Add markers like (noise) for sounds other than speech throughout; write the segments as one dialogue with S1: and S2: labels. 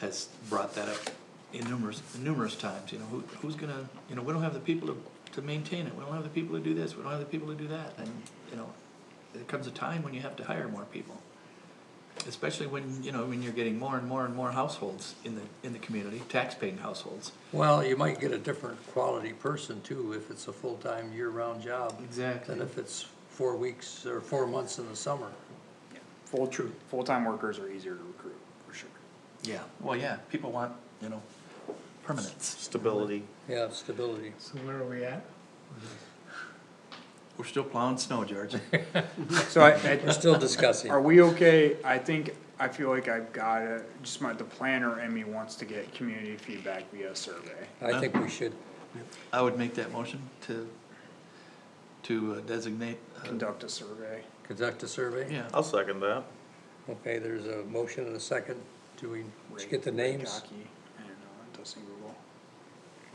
S1: has brought that up in numerous, numerous times, you know, who, who's gonna, you know, we don't have the people to, to maintain it, we don't have the people to do this, we don't have the people to do that, and, you know, there comes a time when you have to hire more people. Especially when, you know, when you're getting more and more and more households in the, in the community, taxpaying households.
S2: Well, you might get a different quality person too, if it's a full-time, year-round job,
S1: Exactly.
S2: than if it's four weeks or four months in the summer.
S3: Full, true, full-time workers are easier to recruit, for sure.
S1: Yeah, well, yeah, people want, you know, permanence.
S4: Stability.
S2: Yeah, stability.
S5: So where are we at?
S1: We're still plowing snow, George.
S3: So I, I,
S2: We're still discussing.
S3: Are we okay? I think, I feel like I've got it, just my, the planner in me wants to get community feedback via survey.
S2: I think we should,
S1: (laughs) I would make that motion to, to uh, designate,
S2: Oh.
S1: uh,
S3: Conduct a survey.
S2: conduct a survey.
S1: yeah,
S4: I'll second that.
S2: Okay, there's a motion and a second. Do we, did you get the
S3: Ray- Ray
S2: names?
S3: Gaki. I don't know, it does seem uh, Google.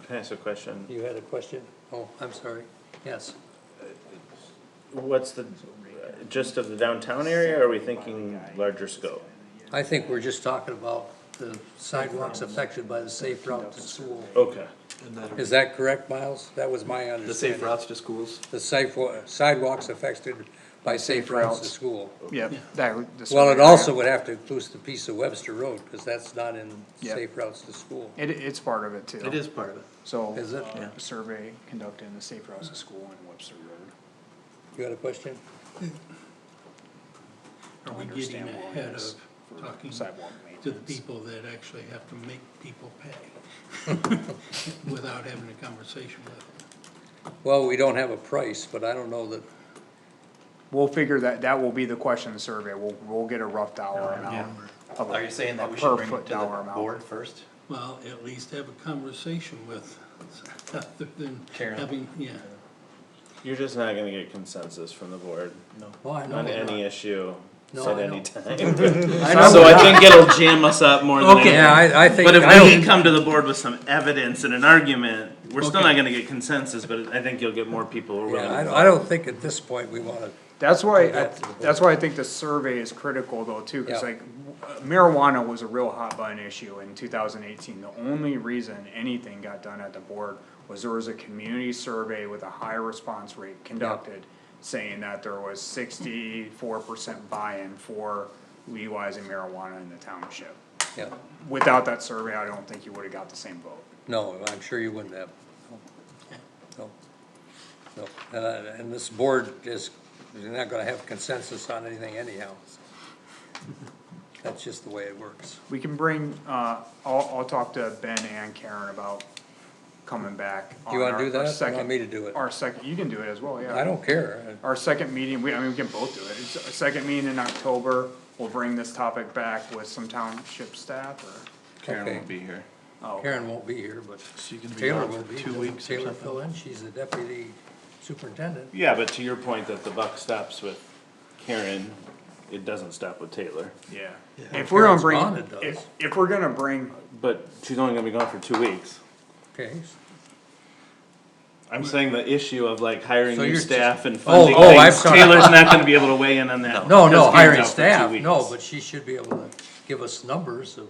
S4: Can I ask a question?
S2: You had a question? Oh, I'm sorry. Yes.
S4: What's the, just of the downtown area, or are we thinking larger scope?
S2: I think we're just talking about the sidewalks affected by the safe route to school.
S4: Okay.
S1: and that,
S2: Is that correct, Miles? That was my
S1: the safe
S2: understanding.
S1: routes to schools.
S2: The safe, wa- sidewalks affected by safe routes to
S3: routes.
S2: school.
S3: Yep, that, the.
S2: Oh. Well, it
S3: survey.
S2: also would have to include the piece of Webster Road, because that's not in
S3: Yeah.
S2: safe routes to school.
S3: It, it's part of it too.
S1: It is part of it.
S3: So.
S2: Is it?
S3: uh,
S1: Yeah.
S3: Survey conducted in the safe routes to school and Webster Road.
S2: You got a question?
S6: Are
S3: Don't
S6: we getting
S3: understand why
S6: ahead
S3: it's
S6: of
S3: for
S6: talking
S3: sidewalk
S6: to the
S3: maintenance.
S6: people that actually have to make people pay without having a conversation with them?
S2: Well, we don't have a price, but I don't know that,
S3: We'll figure that, that will be the question in the survey. We'll, we'll get a rough dollar amount. of a- a per foot dollar amount.
S1: first?
S6: Well, at least have a conversation with, (laughs) other than
S1: Karen.
S6: having, yeah.
S4: You're just not gonna get consensus from the board
S2: well, oh, I know.
S4: on
S2: we're not.
S4: any issue
S2: No,
S4: at
S2: I
S4: any
S2: know. (laughs)
S4: time. (laughs) So I think it'll jam us up more than
S2: Yeah,
S4: anything.
S2: I, I think,
S4: But if we
S2: I
S4: can
S2: don't,
S4: come to the board with some evidence and an argument, we're still
S6: Okay.
S4: not gonna get consensus, but I think you'll get more people who are willing.
S2: yeah,
S4: to
S2: I don't,
S4: vote.
S2: I don't think at this point we wanna,
S3: That's why, I-
S2: back to the board.
S3: that's why I think the survey is critical though too, cause
S2: Yeah.
S3: like marijuana was a real hot button issue in two thousand eighteen. The only reason anything got done at the board was there was a community survey with a high response rate conducted saying that there was sixty-four percent buy-in for legalizing marijuana in the township.
S2: yeah,
S3: Without that survey, I don't think you would've got the same vote.
S2: no, I'm sure you wouldn't have. No, no, and, I- and this board is, you're not gonna have consensus on anything anyhow. That's just the way it works.
S3: We can bring, uh, I'll, I'll talk to Ben and Karen about coming back.
S2: You
S3: on
S2: wanna
S3: our-
S2: do
S3: our
S2: that? You want
S3: second-
S2: me to do it?
S3: Our second, you can do it as well, yeah.
S2: I don't care,
S3: Our second meeting, we, I mean, we can both do it, it's our second meeting in October, we'll bring this topic back with some township staff or,
S2: Karen won't
S4: be here.
S3: oh.
S2: Karen won't be here, but
S1: So you're gonna be
S2: Taylor
S1: gone
S2: will
S1: for
S2: be.
S1: two weeks or
S2: Taylor
S1: something?
S2: fill in, she's the deputy superintendent.
S4: Yeah, but to your point that the buck stops with Karen, it doesn't stop with Taylor.
S3: Yeah, if we're gonna
S2: Karen's
S3: bring,
S2: gone, it does.
S3: if, if we're gonna bring,
S4: But she's only gonna be gone for two weeks.
S2: Okay.
S4: I'm saying the issue of like hiring
S2: So
S4: new
S2: you're
S4: staff
S2: just-
S4: and funding
S2: Oh, oh, I'm
S4: things,
S2: sorry.
S4: Taylor's not gonna be able to weigh in on that.
S2: No,
S4: because
S2: no,
S4: Karen's
S2: hiring
S4: out for two
S2: staff, no,
S4: weeks.
S2: but she should be able to give us numbers of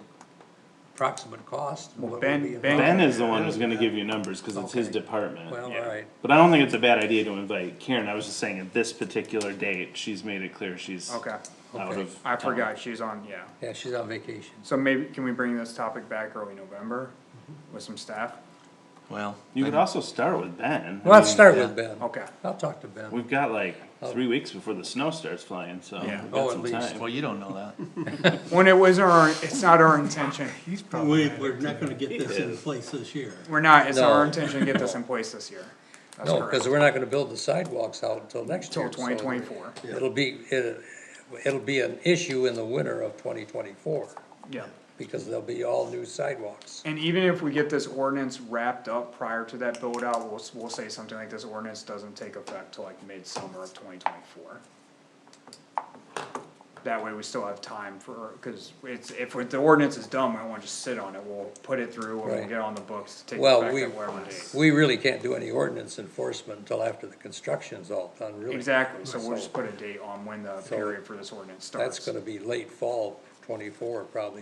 S2: approximate cost. and what would
S3: Ben-
S2: be
S3: Ben-
S4: Ben is the one who's gonna give you numbers, cause it's his department.
S2: Well,
S3: Yeah.
S2: alright,
S4: But I don't think it's a bad idea to invite Karen, I was just saying at this particular date, she's made it clear she's
S3: okay,
S4: out
S2: Okay.
S4: of.
S3: I
S4: town.
S3: forgot, she's on, yeah.
S2: yeah, she's on vacation.
S3: So maybe, can we bring this topic back early November
S2: Mm-hmm.
S3: with some staff?
S1: Well,
S4: You could also start with Ben. I
S2: Well, let's
S4: mean,
S2: start with Ben.
S3: Okay,
S2: I'll talk to Ben.
S4: We've got like three weeks before the snow starts flying, so we've
S3: Yeah.
S2: Oh,
S4: got
S2: at
S4: some
S2: least.
S4: time.
S1: well, you don't know that.
S3: when it was our, it's not our intention,
S6: We, we're not gonna get this in place this year.
S3: We're not, it's our
S2: No.
S3: intention to get this in place this year. That's
S2: No,
S3: correct.
S2: cause we're not gonna build the sidewalks out until next year.
S3: Till twenty twenty-four,
S2: so It'll be, it, it'll be an issue in the winter of twenty twenty-four,
S3: yeah.
S2: because there'll be all new sidewalks.
S3: And even if we get this ordinance wrapped up prior to that build out, we'll, s- we'll say something like this ordinance doesn't take effect till like midsummer of twenty twenty-four. That way we still have time for, cause it's, if the ordinance is done, we don't wanna just sit on it, we'll put it through and we'll
S2: Right.
S3: get on the books to take
S2: Well,
S3: effect
S2: we-
S3: at whatever date.
S2: We really can't do any ordinance enforcement until after the construction's all done, really.
S3: Exactly, so we'll just put a date on when the period for this ordinance
S2: That's
S3: starts.
S2: gonna be late fall twenty-four, probably,